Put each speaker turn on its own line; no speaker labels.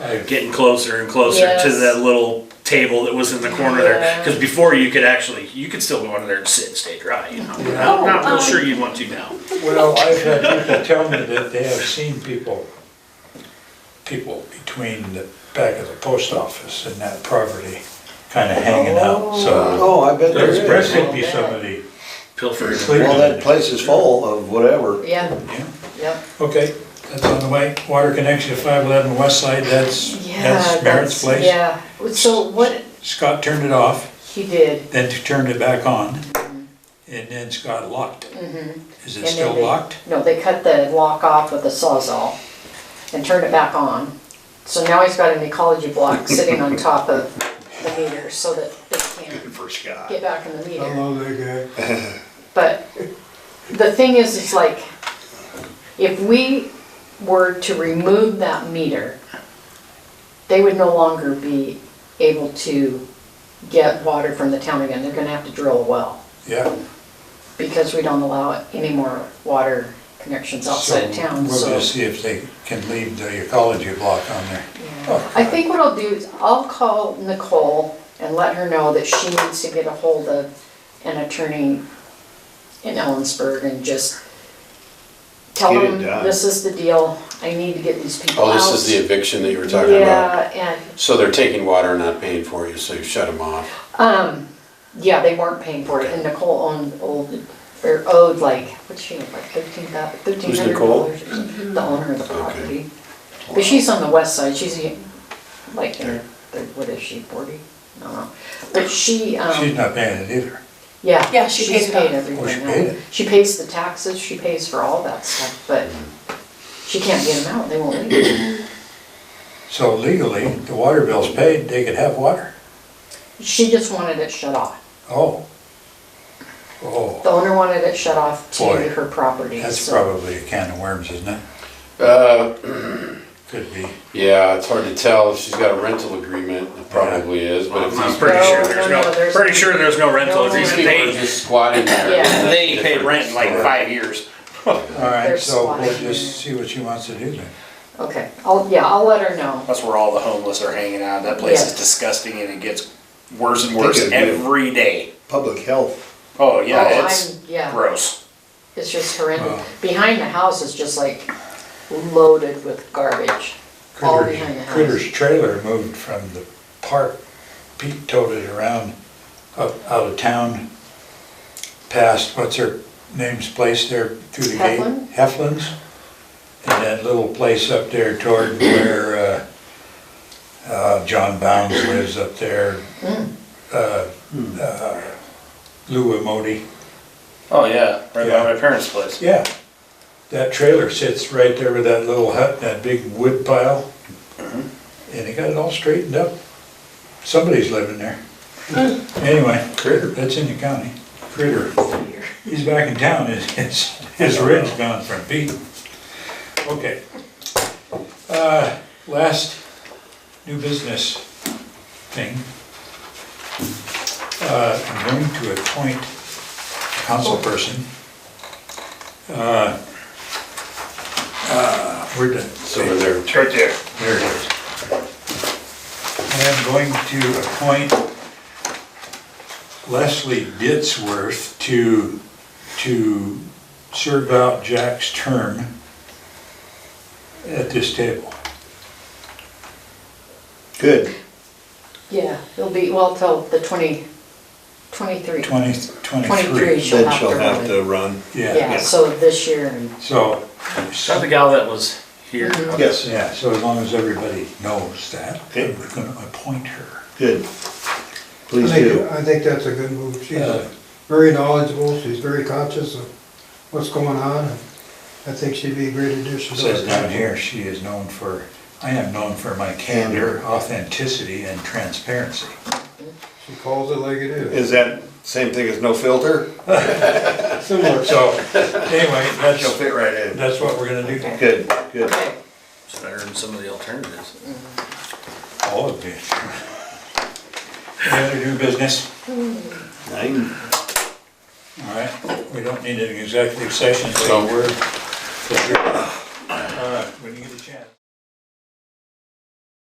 I,
getting closer and closer to
Yes.
that little table that was in the corner there.
Yeah.
Because before you could actually, you could still go under there and sit and stay dry. You know,
Yeah.
I'm not real
Oh, um,
sure you'd want to now.
well, I've had people tell me that they have seen people, people between the back of the post office and that property, kinda hanging out, so.
Oh, I bet there
There's
is.
definitely be somebody,
Pilfering.
Sleep.
Well, that place is full of whatever.
Yeah,
yeah.
yep.
Okay, that's on the way. Water connection to five eleven west side, that's,
Yeah,
that's Merritt's place.
Yeah, so what,
Scott turned it off,
he did,
then t- turned it back on, and then Scott locked it. Is
Mm-hmm. And
it
then
still
they-
locked?
no, they cut the lock off with a sawzall and turned it back on. So now he's got an ecology block sitting on top of the meter so that they can't
For Scott.
get back in the meter.
I love that guy.
But the thing is, it's like, if we were to remove that meter, they would no longer be able to get water from the town again. They're gonna have to drill a well
Yeah.
because we don't allow any more water connections outside of
So
town,
We're
so.
gonna see if they can leave the ecology block on there. Oh,
I think what I'll do is I'll call Nicole and let her know that she needs to get a hold of an attorney in Ellensburg and just tell
Get it
them,
done.
this is the deal, I need to get these people
Oh,
out.
this is the eviction that you were talking about?
Yeah, and,
So they're taking water and not paying for you, so you shut them off?
um, yeah, they weren't paying for it and Nicole owned, old, or owed like, what's she, owe, like thirteen thousand, thirteen hundred
Nicole?
dollars or
Mm-hmm.
something, the owner of the property. But she's on the west side, she's like, third- third- what is she, forty? I don't know. But she,
She's
um,
not paying it either.
yeah.
Yeah, she
she's
paid it off.
everything.
Oh, she
now.
paid it?
She pays the taxes, she pays for all that stuff, but
Mm-hmm.
she can't get them out, they won't leave.
So legally, the water bill's paid, they could have water.
She just wanted it shut off.
Oh. Oh,
The owner wanted it shut off
Boy,
to her property,
that's
so-
probably a can of worms, isn't it?
Uh,
Could be.
yeah, it's hard to tell. If she's got a rental agreement, it probably is, but if
I'm
these
pretty
No,
sure
no,
there's
no,
no,
there's-
pretty sure there's no rental
No.
these
agreement.
people are
They,
just squatting there.
Yeah.
they ain't paid rent in like five years.
All right,
There's
so we'll
spotting.
just see what she wants to do then.
Okay, I'll, yeah, I'll let her know.
That's where all the homeless are hanging out. That place
Yeah.
is disgusting and it gets worse and
I think
worse
it'd be-
every day.
Public health.
Oh, yeah,
Oh,
it's
I'm- yeah.
gross.
It's just horrendous.
Wow.
Behind the house is just like loaded with garbage, all
Critters,
behind the house.
Critters trailer moved from the park, Pete towed it around, up, out of town, past, what's her name's place there through the gate?
Heflin?
Heflin's. And that little place up there toward where, uh, uh, John Bounds lives up there.
Hmm.
Uh, uh, Lou Emoti,
Oh, yeah, right
Yeah.
by my parents' place.
yeah. That trailer sits right there with that little hut, and that big wood pile. And they got it all straightened up. Somebody's living there. Anyway, Critter, that's in the county. Critter. He's back in town, his, his, his rent's gone from Pete. Okay. Uh, last new business thing. Uh, I'm going to appoint council person. Uh, uh, Where'd the
So they're,
It's right there.
there it is. I am going to appoint Leslie Ditzworth to, to serve out Jack's term at this table.
Good.
Yeah, it'll be, well, till the twenty, twenty-three.
Twenty
Twenty-three,
twenty-three.
she'll
Then
have to
she'll have
run.
to run.
Yeah, so this year, and
So,
Is that the gal that was here?
Yes,
yeah, so as long as everybody knows that,
Okay.
we're gonna appoint her.
good.
I
Please do.
think, I think that's a good move. She's
Yeah.
very knowledgeable, she's very conscious of what's going on. and I think she'd be a great addition
It
to
says down
us.
here, she is known for, I am known for my candor, authenticity, and transparency.
She calls it like it is.
Is that same thing as no filter?
Similar.
So, anyway,
She'll
that's,
fit right in.
that's what we're gonna do.
Good, good.
okay,
It's better than some of the alternatives.
All of you. Any other new business?
Nine.
All right, we don't need an executive session, so
So-
we're. All right, when you get a chance.